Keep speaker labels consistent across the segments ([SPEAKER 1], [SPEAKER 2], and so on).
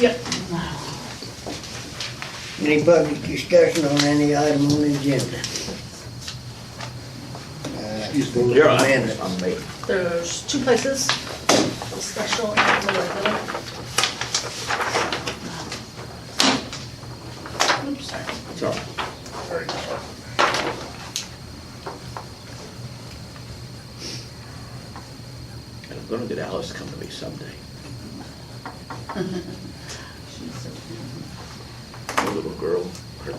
[SPEAKER 1] Yep.
[SPEAKER 2] Any public discussion on any item on the agenda? Uh, Go to
[SPEAKER 3] You're on.
[SPEAKER 2] the minutes.
[SPEAKER 1] There's two places, the special and the regular. Oops, sorry.
[SPEAKER 3] Sorry. I'm gonna get Alice to come to me someday. The little girl, her,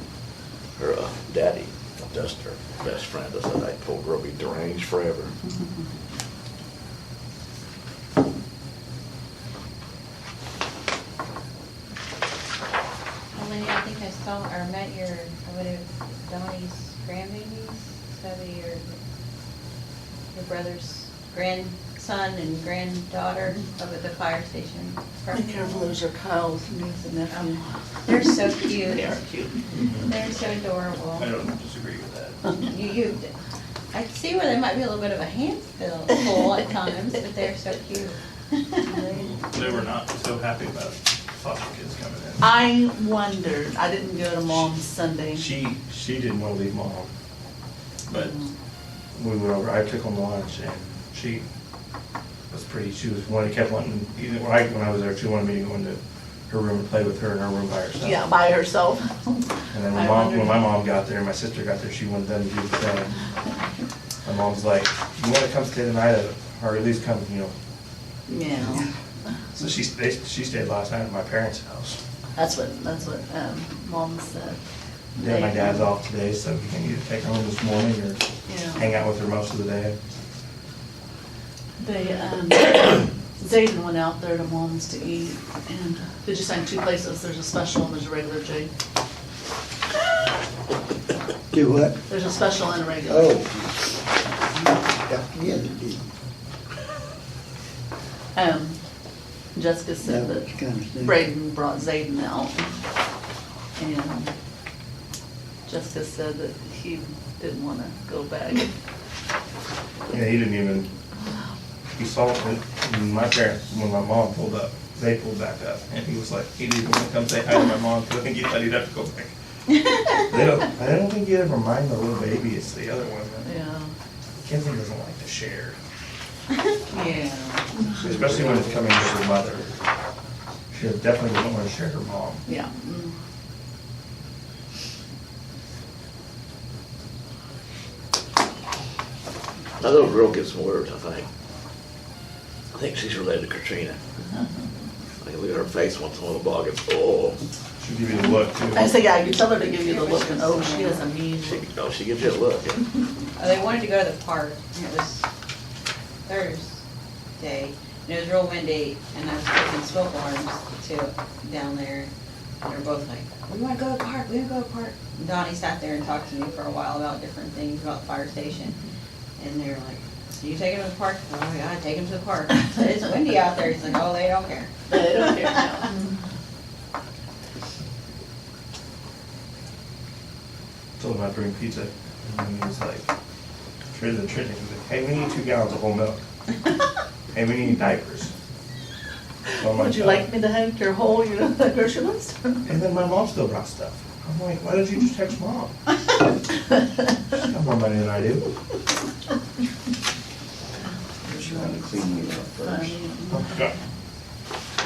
[SPEAKER 3] her uh, daddy, that's her best friend, I said, that poor girl be deranged forever.
[SPEAKER 4] Melanie, I think I saw or met your, I would have Donnie's grandbabies, so that your, your brother's grandson and granddaughter over at the fire station.
[SPEAKER 1] Be careful, those are Kyle's niece and nephew.
[SPEAKER 4] They're so cute.
[SPEAKER 1] They are cute.
[SPEAKER 4] They're so adorable.
[SPEAKER 5] I don't disagree with that.
[SPEAKER 4] You, you, I see where they might be a little bit of a handful full at times, but they're so cute.
[SPEAKER 5] They were not so happy about foster kids coming in.
[SPEAKER 1] I wondered, I didn't go to mom's Sunday.
[SPEAKER 5] She, she didn't want to leave mom, but
[SPEAKER 1] Mm-hmm.
[SPEAKER 5] we went over, I took them to lunch and she was pretty, she was, wanted, kept wanting, either, when I, when I was there, she wanted me to go into her room and play with her in her room by herself.
[SPEAKER 1] Yeah, by herself.
[SPEAKER 5] And then when
[SPEAKER 1] I
[SPEAKER 5] mom, when
[SPEAKER 1] wondered-
[SPEAKER 5] my mom got there, my sister got there, she wanted them to do the same. My mom's like, you wanna come stay the night at, or at least come, you know,
[SPEAKER 1] Yeah,
[SPEAKER 5] so she, they, she stayed last night at my parents' house.
[SPEAKER 1] that's what, that's what, um, mom said.
[SPEAKER 5] Yeah, my
[SPEAKER 1] They-
[SPEAKER 5] dad's off today, so we can either take her home this morning
[SPEAKER 1] Yeah.
[SPEAKER 5] or hang out with her most of the day.
[SPEAKER 1] They, um, Zayden went out there to Mom's to eat, and they just sang two places, there's a special and there's a regular, Jay.
[SPEAKER 2] Do what?
[SPEAKER 1] There's a special and a regular.
[SPEAKER 2] Oh. Got together, did you?
[SPEAKER 1] Um, Jessica
[SPEAKER 2] That
[SPEAKER 1] said
[SPEAKER 2] was
[SPEAKER 1] that
[SPEAKER 2] kind of soon.
[SPEAKER 1] Braden brought Zayden out, and Jessica said that he didn't wanna go back.
[SPEAKER 5] Yeah, he didn't even, he saw it, when my parents, when my mom pulled up, they pulled back up, and he was like, he didn't even wanna come say hi to my mom, 'cause I think he thought he'd have to go back. They don't, I don't think you ever mind the little baby, it's the other one, that-
[SPEAKER 1] Yeah,
[SPEAKER 5] Kenzie doesn't like to share,
[SPEAKER 1] yeah,
[SPEAKER 5] especially when it's coming with her mother. She definitely doesn't wanna share her mom.
[SPEAKER 1] yeah. mm.
[SPEAKER 3] That little girl gets some words, I think. I think she's related to Katrina. I can look at her face once in a while, bog and, oh,
[SPEAKER 5] She'll give you the look too.
[SPEAKER 1] I said, yeah, you tell her to give you the look, and oh, she doesn't mean.
[SPEAKER 3] she, oh, she gives you a look. yeah.
[SPEAKER 4] Uh, They wanted to go to the park, and it was Thursday, and it was real windy, and I was taking smoke alarms to, down there, and they're both like, we wanna go to the park, we wanna go to the park. Donnie sat there and talked to me for a while about different things, about the fire station, and they were like, so you taking them to the park? Oh, my God, take them to the park. I said, It's windy out there, he's like, oh, they don't care.
[SPEAKER 1] They don't care now.
[SPEAKER 5] told him I'd bring pizza. And he was like, "Trade the trade." He was like, hey, we need two gallons of whole milk. hey, we need diapers. So I'm "Oh."
[SPEAKER 1] Would you like me to have your whole, you know, grocery list?
[SPEAKER 5] And then my mom still brought stuff. I'm like, why did you just text mom? She's got more money than I do.
[SPEAKER 2] Just trying to clean it up first.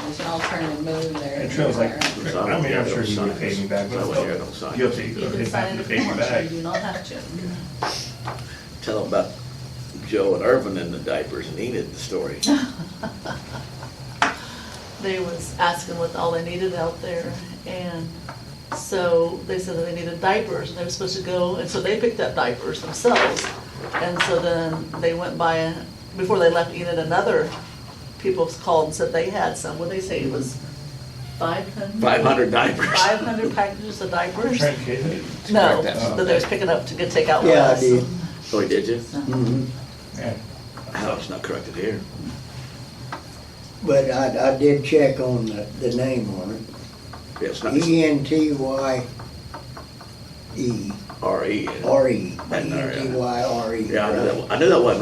[SPEAKER 4] There's an alternative move there.
[SPEAKER 5] And Trey was like, I mean, I'm sure you would pay me back, but
[SPEAKER 3] Sign it, don't
[SPEAKER 5] still,
[SPEAKER 3] sign it.
[SPEAKER 5] guilty. You
[SPEAKER 1] You can
[SPEAKER 5] didn't
[SPEAKER 1] sign
[SPEAKER 5] have
[SPEAKER 1] it
[SPEAKER 5] to
[SPEAKER 1] if
[SPEAKER 5] pay
[SPEAKER 1] you
[SPEAKER 5] me
[SPEAKER 1] want to,
[SPEAKER 5] back.
[SPEAKER 1] you do not have to.
[SPEAKER 3] Tell them about Joe and Irvin and the diapers and Enid, the story.
[SPEAKER 1] They was asking what all they needed out there, and so they said that they needed diapers, and they were supposed to go, and so they picked up diapers themselves. And so then they went by, and before they left Enid, another people called and said they had some, what'd they say, it was five hundred?
[SPEAKER 3] Five hundred diapers.
[SPEAKER 1] Five hundred packages of diapers?
[SPEAKER 5] Trent kid.
[SPEAKER 1] No,
[SPEAKER 3] Correct, that's-
[SPEAKER 1] that they was picking up to get takeout with
[SPEAKER 2] Yeah, I
[SPEAKER 1] us.
[SPEAKER 2] did.
[SPEAKER 3] Oh, he did you?
[SPEAKER 2] Mhm.
[SPEAKER 5] Yeah.
[SPEAKER 3] Oh, it's not corrected here.
[SPEAKER 2] But I, I did check on the, the name on it.
[SPEAKER 3] Yeah, it's not
[SPEAKER 2] E N T Y E
[SPEAKER 3] R E.
[SPEAKER 2] R E. E
[SPEAKER 3] Right
[SPEAKER 2] N
[SPEAKER 3] there, yeah.
[SPEAKER 2] T Y R E.
[SPEAKER 3] Yeah, I knew that, I knew that wasn't right.